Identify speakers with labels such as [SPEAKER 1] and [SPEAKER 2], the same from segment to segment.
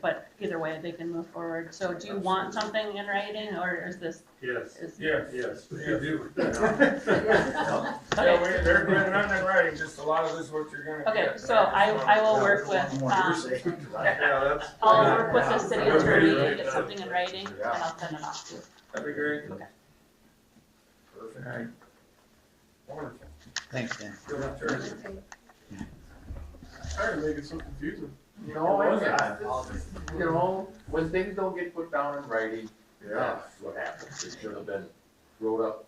[SPEAKER 1] but either way, they can move forward. So do you want something in writing or is this,
[SPEAKER 2] Yes,
[SPEAKER 1] is?
[SPEAKER 3] Yes,
[SPEAKER 2] yes.
[SPEAKER 3] you do.
[SPEAKER 1] Okay,
[SPEAKER 3] Yeah, we, they're, they're not in writing, just a lot of this what you're gonna
[SPEAKER 1] Okay,
[SPEAKER 3] get.
[SPEAKER 1] so I, I will work with, um,
[SPEAKER 3] Yeah, that's,
[SPEAKER 1] I'll work with the city attorney and get something in writing and I'll send it off.
[SPEAKER 3] that'd be great.
[SPEAKER 1] Okay.
[SPEAKER 3] Perfect.
[SPEAKER 4] Alright,
[SPEAKER 3] Wonderful.
[SPEAKER 4] thanks, Dan.
[SPEAKER 3] Good luck, Terry.
[SPEAKER 5] Sorry to make it so confusing.
[SPEAKER 2] Oh,
[SPEAKER 6] No,
[SPEAKER 3] It
[SPEAKER 6] it's,
[SPEAKER 3] was.
[SPEAKER 6] it's- you know, when things don't get put down in writing,
[SPEAKER 5] Yeah.
[SPEAKER 6] that's what happens. It should have been wrote up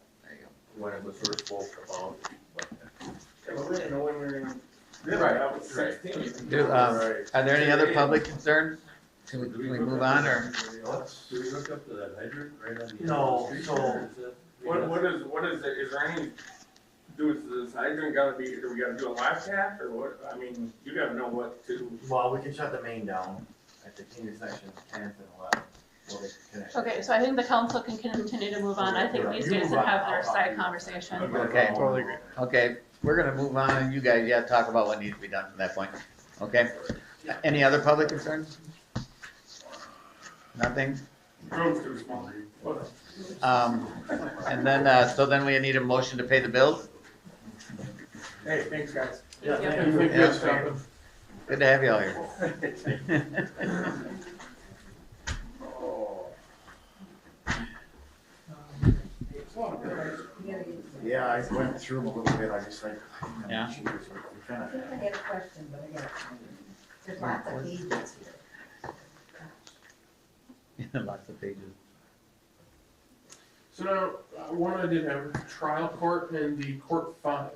[SPEAKER 6] when it was first spoke about. but-
[SPEAKER 3] Yeah, but we didn't know when we were gonna.
[SPEAKER 6] Right,
[SPEAKER 3] That was
[SPEAKER 6] right.
[SPEAKER 3] sixteen.
[SPEAKER 4] Do, um,
[SPEAKER 6] Right.
[SPEAKER 4] Are there any other public concerns? Can we, can we move on, or?
[SPEAKER 2] Do we hook up to that hydrant right on the?
[SPEAKER 6] No,
[SPEAKER 2] street
[SPEAKER 6] no.
[SPEAKER 2] there? Is that-
[SPEAKER 3] What, what is, what is it, is there any, do, is this hydrant gotta be, do we gotta do a live tap or what? I mean, you gotta know what to,
[SPEAKER 7] Well, we can shut the main down at the intersection of tenth and eleven, where they connect.
[SPEAKER 1] Okay, so I think the council can continue to move on. I think these guys can have their side conversation.
[SPEAKER 4] Okay. Totally Okay, we're gonna move on, and you guys, yeah, talk about what needs to be done from that point, okay? Any other public concerns? Nothing?
[SPEAKER 3] room's too small.
[SPEAKER 4] Um, and then, uh, so then we need a motion to pay the bills?
[SPEAKER 3] Hey, thanks, guys.
[SPEAKER 5] Yeah,
[SPEAKER 1] Yeah.
[SPEAKER 5] thank you.
[SPEAKER 4] Yeah.
[SPEAKER 5] Yes, Jonathan.
[SPEAKER 4] Good to have you all here.
[SPEAKER 7] Yeah, I went through them a little bit, I just like.
[SPEAKER 4] Yeah.
[SPEAKER 7] Kinda-
[SPEAKER 8] I have a question, but I got it. There's lots of pages here.
[SPEAKER 4] Lots of pages.
[SPEAKER 5] So now, uh, one I did have, trial court and the court fines.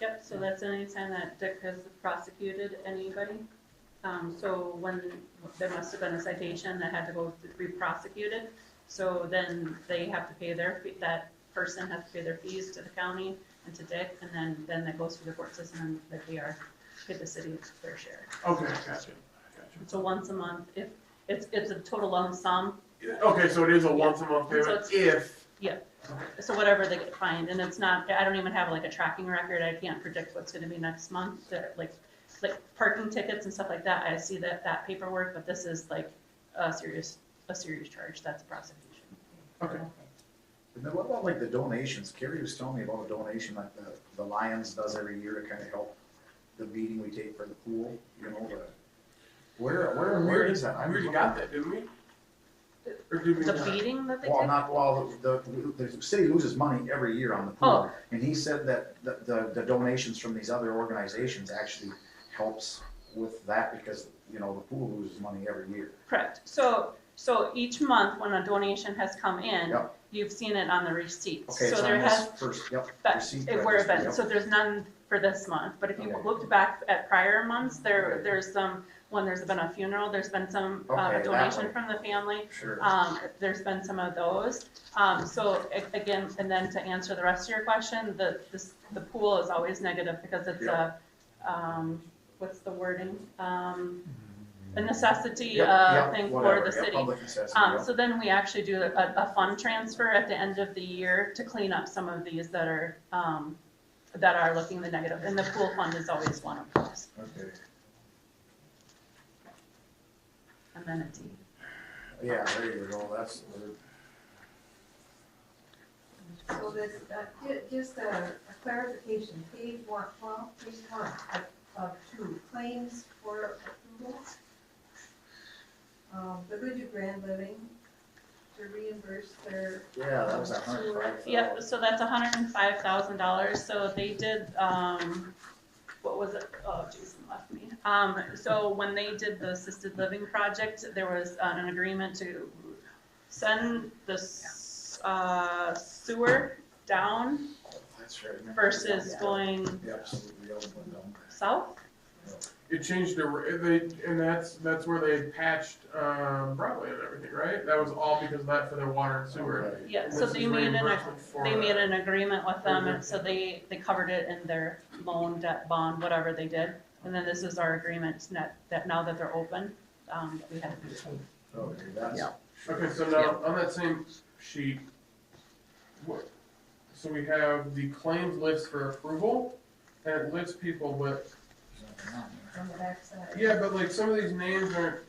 [SPEAKER 1] Yep, so that's any time that Dick has prosecuted anybody. Um, so when, there must have been a citation that had to go to be prosecuted. So then they have to pay their, fee- that person has to pay their fees to the county and to Dick, and then, then that goes through the court system and they are, pay the city their share.
[SPEAKER 5] Okay, gotcha, gotcha.
[SPEAKER 1] So once a month, if, it's, it's a total lump sum,
[SPEAKER 5] Yeah, Okay, so it is a once a month
[SPEAKER 1] So it's-
[SPEAKER 5] payment if,
[SPEAKER 1] so whatever they get fined, and it's not, I don't even have like a tracking record, I can't predict what's gonna be next month, They're, like, like parking tickets and stuff like that, I see that, that paperwork, but this is like a serious, a serious charge, that's a prosecution.
[SPEAKER 5] okay.
[SPEAKER 9] And then what about like the donations? Carrie was telling me about a donation that the, the Lions does every year to kind of help the meeting we take for the pool, you know, the. Where, where, where is that?
[SPEAKER 3] We
[SPEAKER 9] I
[SPEAKER 3] already got that, didn't we? Or did we
[SPEAKER 1] The
[SPEAKER 3] not?
[SPEAKER 5] uh,
[SPEAKER 1] beating that they
[SPEAKER 9] Well,
[SPEAKER 1] take,
[SPEAKER 9] not, well, the, the, the city loses money every year on the
[SPEAKER 1] Oh.
[SPEAKER 9] pool. And he said that the, the, the donations from these other organizations actually helps with that because, you know, the pool loses money every year.
[SPEAKER 1] correct, so, so each month when a donation has come in,
[SPEAKER 9] Yep.
[SPEAKER 1] you've seen it on the receipts,
[SPEAKER 9] Okay,
[SPEAKER 1] so
[SPEAKER 9] it's
[SPEAKER 1] there
[SPEAKER 9] on
[SPEAKER 1] has
[SPEAKER 9] this first, yep.
[SPEAKER 1] But
[SPEAKER 9] receipt
[SPEAKER 1] it were
[SPEAKER 9] register,
[SPEAKER 1] events,
[SPEAKER 9] yep.
[SPEAKER 1] so there's none for this month, but if you
[SPEAKER 9] Okay.
[SPEAKER 1] looked back at prior months, there,
[SPEAKER 9] Okay.
[SPEAKER 1] there's some, when there's been a funeral, there's been some, uh,
[SPEAKER 9] Okay, that
[SPEAKER 1] donation
[SPEAKER 9] one.
[SPEAKER 1] from the family.
[SPEAKER 9] Sure.
[SPEAKER 1] Um, there's been some of those, um, so a- again, and then to answer the rest of your question, the, this, the pool is always negative because it's a, um, what's the wording? Um, a necessity,
[SPEAKER 9] Mm-hmm. Yep,
[SPEAKER 1] uh,
[SPEAKER 9] yep,
[SPEAKER 1] thing for
[SPEAKER 9] whatever,
[SPEAKER 1] the
[SPEAKER 9] yep,
[SPEAKER 1] city.
[SPEAKER 9] Public assessment,
[SPEAKER 1] Um,
[SPEAKER 9] yep.
[SPEAKER 1] so then we actually do a, a fund transfer at the end of the year to clean up some of these that are, um, that are looking the negative, and the pool fund is always one of those,
[SPEAKER 9] Okay.
[SPEAKER 1] amenity.
[SPEAKER 9] Yeah, there you go, that's,
[SPEAKER 8] So this, uh, ju- just a a clarification, page one, well, page one of, of two, claims for approval. Um, Village of Grand Living to reimburse their.
[SPEAKER 9] yeah, that was a hundred
[SPEAKER 8] Sewer.
[SPEAKER 9] and five.
[SPEAKER 1] Yep, so that's hundred and five thousand dollars, so they did, um, what was it, oh, Jason left me. Um, so when they did the assisted living project, there was an agreement to send the, s- uh, sewer down
[SPEAKER 9] That's right, I remember.
[SPEAKER 1] versus going
[SPEAKER 9] Yeah, absolutely, the other one down.
[SPEAKER 1] south?
[SPEAKER 5] It changed the, ra- they, and that's, that's where they patched, um, Broadway and everything, right? That was all because of that for their water and sewer.
[SPEAKER 9] Right.
[SPEAKER 1] Yeah, so
[SPEAKER 5] This
[SPEAKER 1] they
[SPEAKER 5] is
[SPEAKER 1] made an,
[SPEAKER 5] reimbursement for
[SPEAKER 1] they
[SPEAKER 5] that.
[SPEAKER 1] made an agreement with them, and so
[SPEAKER 5] Mhm.
[SPEAKER 1] they, they covered it in their loan, debt, bond, whatever they did. And then this is our agreement that, that now that they're open, um, we have.
[SPEAKER 9] Okay, that's,
[SPEAKER 4] Yeah.
[SPEAKER 5] Okay, so now, on that same sheet, what, so we have the claims list for approval, and it lists people, but,
[SPEAKER 8] On the backside.
[SPEAKER 5] yeah, but like, some of these names aren't